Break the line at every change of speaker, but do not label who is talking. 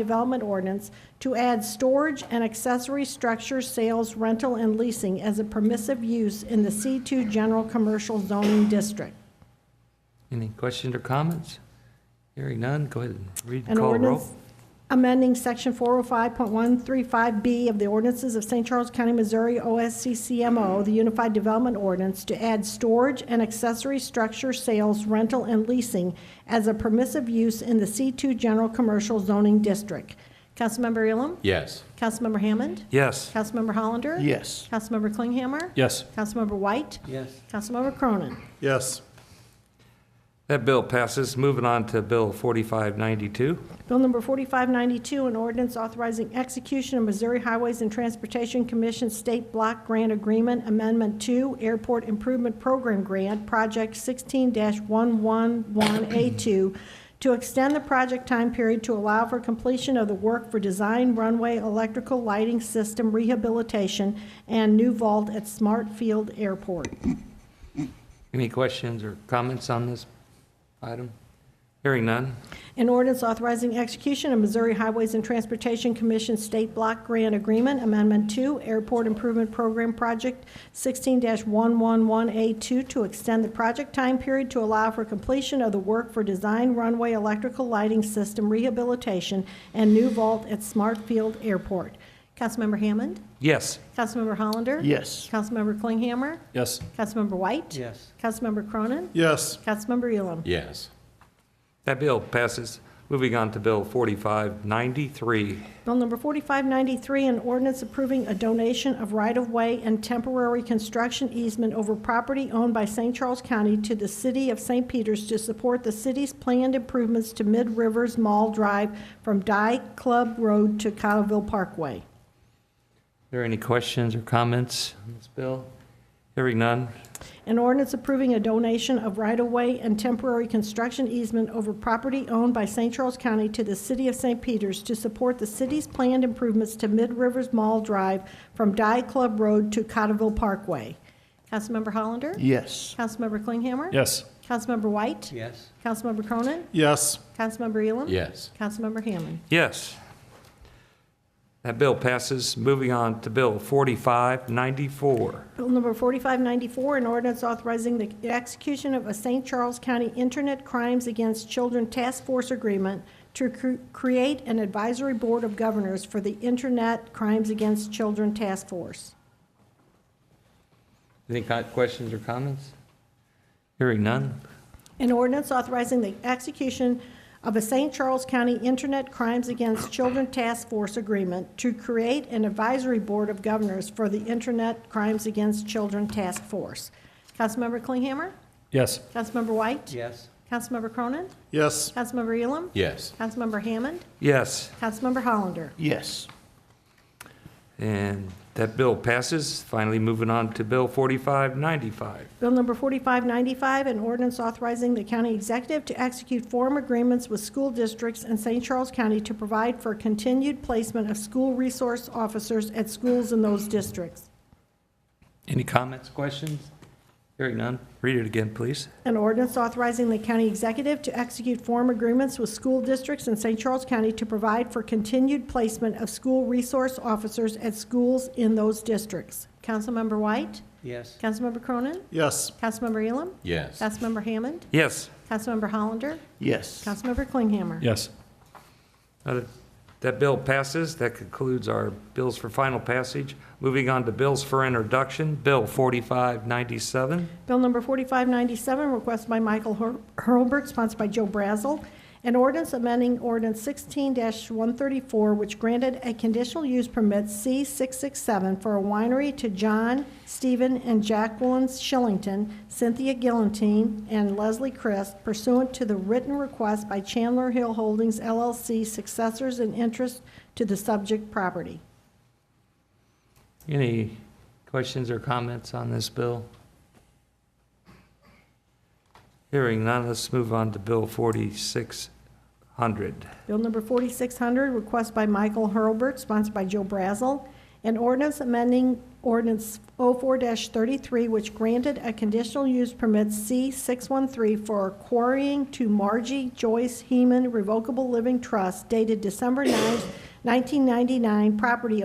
development ordinance to add storage and accessory structure sales, rental, and leasing as a permissive use in the C2 General Commercial Zoning District.
Any questions or comments? Hearing none, go ahead and read and
An
call roll.
ordinance amending section 405.135B of the ordinances of St. Charles County, Missouri, OSCCMO, the Unified Development Ordinance, to add storage and accessory structure sales, rental, and leasing as a permissive use in the C2 General Commercial Zoning District. Councilmember Ehlum?
Yes.
Councilmember Hammond?
Yes.
Councilmember Hollander?
Yes.
Councilmember Klinghammer?
Yes.
Councilmember White?
Yes.
Councilmember Cronin?
Yes.
That bill passes. Moving on to Bill 4592.
Bill number 4592, an ordinance authorizing execution of Missouri Highways and Transportation Commission State Block Grant Agreement Amendment 2 Airport Improvement Program Grant, Project 16-111A2, to extend the project time period to allow for completion of the work for design runway electrical lighting system rehabilitation and new vault at Smart Field Airport.
Any questions or comments on this item? Hearing none.
An ordinance authorizing execution of Missouri Highways and Transportation Commission State Block Grant Agreement Amendment 2 Airport Improvement Program Project 16-111A2 to extend the project time period to allow for completion of the work for design runway electrical lighting system rehabilitation and new vault at Smart Field Airport. Councilmember Hammond?
Yes.
Councilmember Hollander?
Yes.
Councilmember Klinghammer?
Yes.
Councilmember White?
Yes.
Councilmember Cronin?
Yes.
Councilmember Ehlum?
Yes.
That bill passes. Moving on to Bill 4593.
Bill number 4593, an ordinance approving a donation of right-of-way and temporary construction easement over property owned by St. Charles County to the city of St. Peters to support the city's planned improvements to Mid Rivers Mall Drive from Dyke Club Road to Cottleville Parkway.
Are there any questions or comments on this bill? Hearing none.
An ordinance approving a donation of right-of-way and temporary construction easement over property owned by St. Charles County to the city of St. Peters to support the city's planned improvements to Mid Rivers Mall Drive from Die Club Road to Cotterville Parkway. Councilmember Hollander?
Yes.
Councilmember Klinghammer?
Yes.
Councilmember White?
Yes.
Councilmember Cronin?
Yes.
Councilmember Elam?
Yes.
Councilmember Hammond?
Yes. That bill passes. Moving on to Bill 4594.
Bill number 4594, an ordinance authorizing the execution of a St. Charles County Internet Crimes Against Children Task Force Agreement to cr- create an advisory board of governors for the Internet Crimes Against Children Task Force.
Any co- questions or comments? Hearing none.
An ordinance authorizing the execution of a St. Charles County Internet Crimes Against Children Task Force Agreement to create an advisory board of governors for the Internet Crimes Against Children Task Force. Councilmember Klinghammer?
Yes.
Councilmember White?
Yes.
Councilmember Cronin?
Yes.
Councilmember Elam?
Yes.
Councilmember Hammond?
Yes.
Councilmember Hollander?
Yes.
And that bill passes. Finally, moving on to Bill 4595.
Bill number 4595, an ordinance authorizing the county executive to execute form agreements with school districts in St. Charles County to provide for continued placement of school resource officers at schools in those districts.
Any comments, questions? Hearing none. Read it again, please.
An ordinance authorizing the county executive to execute form agreements with school districts in St. Charles County to provide for continued placement of school resource officers at schools in those districts. Councilmember White?
Yes.
Councilmember Cronin?
Yes.
Councilmember Elam?
Yes.
Councilmember Hammond?
Yes.
Councilmember Hollander?
Yes.
Councilmember Klinghammer?
Yes.
Uh, That bill passes. That concludes our bills for final passage. Moving on to bills for introduction, Bill 4597.
Bill number 4597, requested by Michael Hur- Hurlbert, sponsored by Joe Brazel, an ordinance amending ordinance 16-134, which granted a conditional use permit C667 for a winery to John, Stephen, and Jacqueline Shillington, Cynthia Gillantine, and Leslie Crist pursuant to the written request by Chandler Hill Holdings LLC, successors in interest to the subject property.
Any questions or comments on this bill? Hearing none, let's move on to Bill 4600.
Bill number 4600, request by Michael Hurlbert, sponsored by Joe Brazel, an ordinance amending ordinance 04-33, which granted a conditional use permit C613 for quarrying to Margie Joyce Heeman Revocable Living Trust dated December 9, 1999, property